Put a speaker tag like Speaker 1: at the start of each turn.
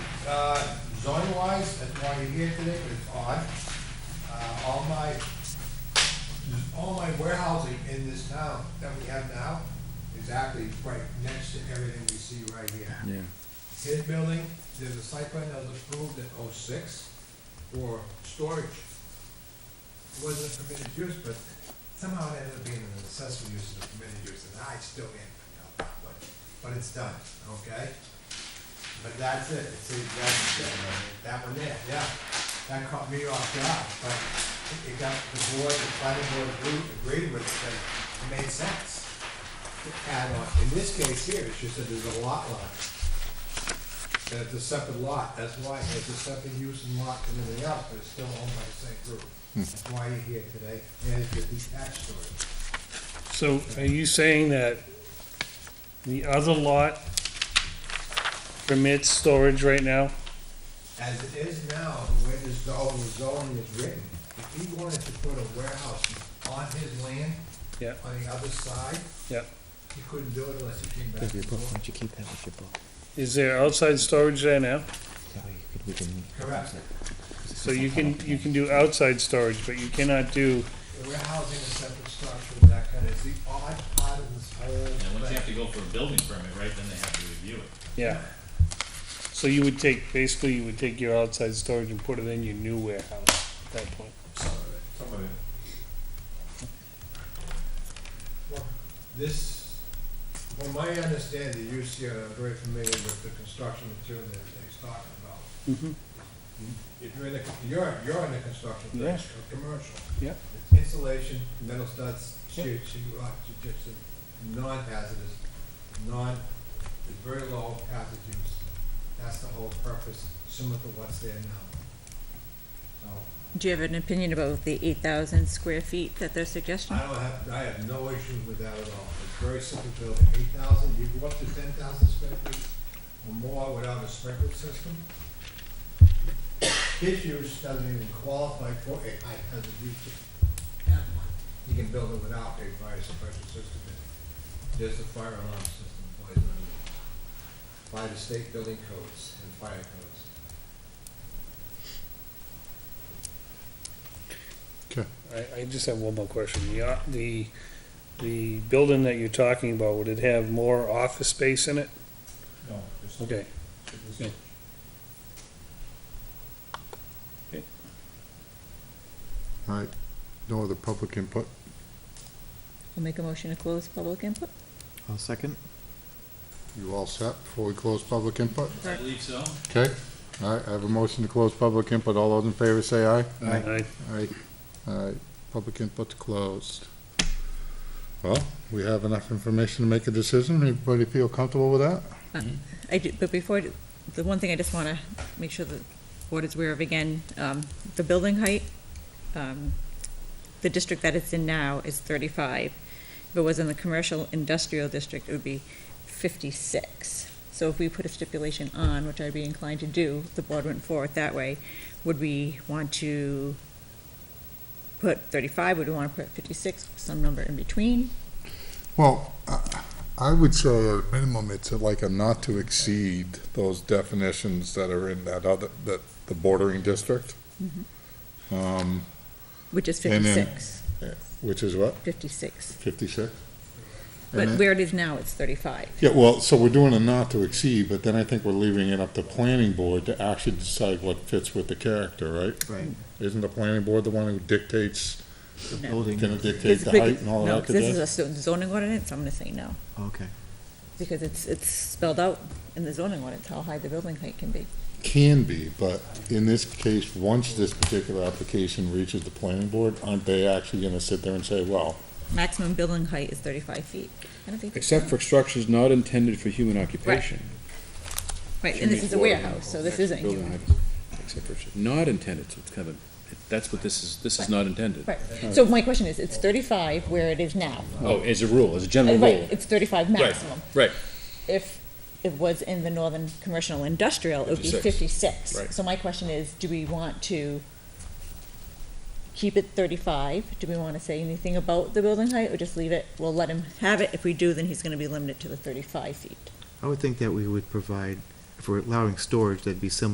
Speaker 1: Uh, zoning wise, that's why you're here today, but it's odd. Uh, all my, all my warehousing in this town that we have now is actually right next to everything we see right here.
Speaker 2: Yeah,
Speaker 1: His building, there's a site plan that was approved in oh-six for storage. It Wasn't a permitted use, but somehow it ended up being an accessory use of permitted use, and I still can't figure out that one. But it's done, okay? But that's it, it's, a- that's, it. that one there, yeah. That caught me off guard, but it- it got the board, the planning board agreed, agreed with it, that it made sense. to Add on, in this case here, it's just that there's a lot line. And it's a separate lot, that's why it's a separate use and lot and everything else, but it's still owned by the same group. That's why you're here today, and it's a detached story.
Speaker 3: So are you saying that the other lot permits storage right now?
Speaker 1: As it is now, the way this zone, the zoning is written, if he wanted to put a warehouse on his land,
Speaker 3: Yeah,
Speaker 1: on the other side,
Speaker 3: yeah.
Speaker 1: he couldn't do it unless he came back.
Speaker 2: your
Speaker 1: and
Speaker 2: book, why
Speaker 1: forth.
Speaker 2: don't you keep that with your book?
Speaker 3: Is there outside storage there now?
Speaker 2: That way you could, we can.
Speaker 1: Correct.
Speaker 3: So you can, you can do outside storage, but you cannot do,
Speaker 1: The warehousing is separate structure, and that kind of, it's the odd part of this
Speaker 4: And
Speaker 1: whole
Speaker 4: once you have
Speaker 1: thing.
Speaker 4: to go for a building permit, right, then they have to review it.
Speaker 3: yeah. So you would take, basically you would take your outside storage and put it in your new warehouse at that point.
Speaker 1: Some of it.
Speaker 4: Some of it.
Speaker 1: Well, This, from my understanding, the use here, I'm very familiar with the construction material that he's talking about.
Speaker 3: Mhm.
Speaker 1: If you're in the, you're, you're in the construction
Speaker 3: Yeah.
Speaker 1: phase, or commercial.
Speaker 3: Yeah.
Speaker 1: It's Insulation, metal studs,
Speaker 3: Yeah.
Speaker 1: sheet, sheet rock, ju- just a non-hazardous, non, it's very low hazard use. That's the whole purpose, similar to what's there now. So,
Speaker 5: Do you have an opinion about the eight thousand square feet that they're suggesting?
Speaker 1: I don't have, I have no issue with that at all. It's very simple building, eight thousand, you go up to ten thousand square feet or more without a sprinkler system. His use doesn't even qualify for a high hazard use. at one. You can build it without a fire suppression system. in it. There's a fire alarm system by the, by the state building codes and fire codes.
Speaker 3: I, I just have one more question. The, o- the, the building that you're talking about, would it have more office space in it?
Speaker 4: No, there's
Speaker 3: Okay. Yeah.
Speaker 6: All right, no other public input?
Speaker 5: We'll make a motion to close public input?
Speaker 2: I'll second.
Speaker 6: You all set before we close public input?
Speaker 4: I believe so.
Speaker 6: Okay, all right, I have a motion to close public input. All those in favor say aye.
Speaker 3: Aye.
Speaker 6: All right, all right, public input's closed. Well, we have enough information to make a decision. Everybody feel comfortable with that?
Speaker 5: I do, but before, I do- the one thing I just wanna make sure the board is aware of again, um, the building height, um, the district that it's in now is thirty-five. If it was in the commercial industrial district, it would be fifty-six. So if we put a stipulation on, which I'd be inclined to do, if the board went forward that way, would we want to put thirty-five, would we wanna put fifty-six, some number in between?
Speaker 6: Well, I- I would say at a minimum, it's like a not to exceed those definitions that are in that other, that, the bordering district.
Speaker 5: Mm-hmm.
Speaker 6: Um,
Speaker 5: Which is
Speaker 6: And then-
Speaker 5: fifty-six,
Speaker 6: which is what,
Speaker 5: fifty-six.
Speaker 6: fifty-six?
Speaker 5: But where it is now, it's thirty-five.
Speaker 6: Yeah, well, so we're doing a not to exceed, but then I think we're leaving it up to planning board to actually decide what fits with the character, right?
Speaker 2: Right.
Speaker 6: Isn't the planning board the one who dictates,
Speaker 2: Building.
Speaker 6: gonna
Speaker 5: This
Speaker 6: dictate
Speaker 5: is
Speaker 6: the
Speaker 5: big-
Speaker 6: height and all
Speaker 5: no,
Speaker 6: that?
Speaker 5: This is a
Speaker 6: good
Speaker 5: zo- zoning ordinance, I'm gonna say no,
Speaker 2: Okay.
Speaker 5: because it's, it's spelled out in the zoning ordinance how high the building height can be.
Speaker 6: stuff? Can be, but in this case, once this particular application reaches the planning board, aren't they actually gonna sit there and say, well,
Speaker 5: Maximum building height is thirty-five feet. I don't think that's-
Speaker 7: Except for structures not intended for human occupation.
Speaker 5: Right, and this is a warehouse, so this isn't.
Speaker 7: Building
Speaker 5: human.
Speaker 7: height, Except for, not intended, so it's kind of, that's what this is, this is not intended.
Speaker 5: Right, so my question is, it's thirty-five where it is now.
Speaker 7: Oh, as a rule, as a general
Speaker 5: And Right,
Speaker 7: rule.
Speaker 5: it's thirty-five maximum.
Speaker 7: right.
Speaker 5: If it was in the northern commercial industrial, it would be
Speaker 7: 56.
Speaker 5: fifty-six.
Speaker 7: Right.
Speaker 5: So my question is, do we want to keep it thirty-five? Do we want to say anything about the building height, or just leave it, we'll let him have it? If we do, then he's gonna be limited to the thirty-five feet.
Speaker 2: I would think that we would provide, if we're allowing storage, that'd be similar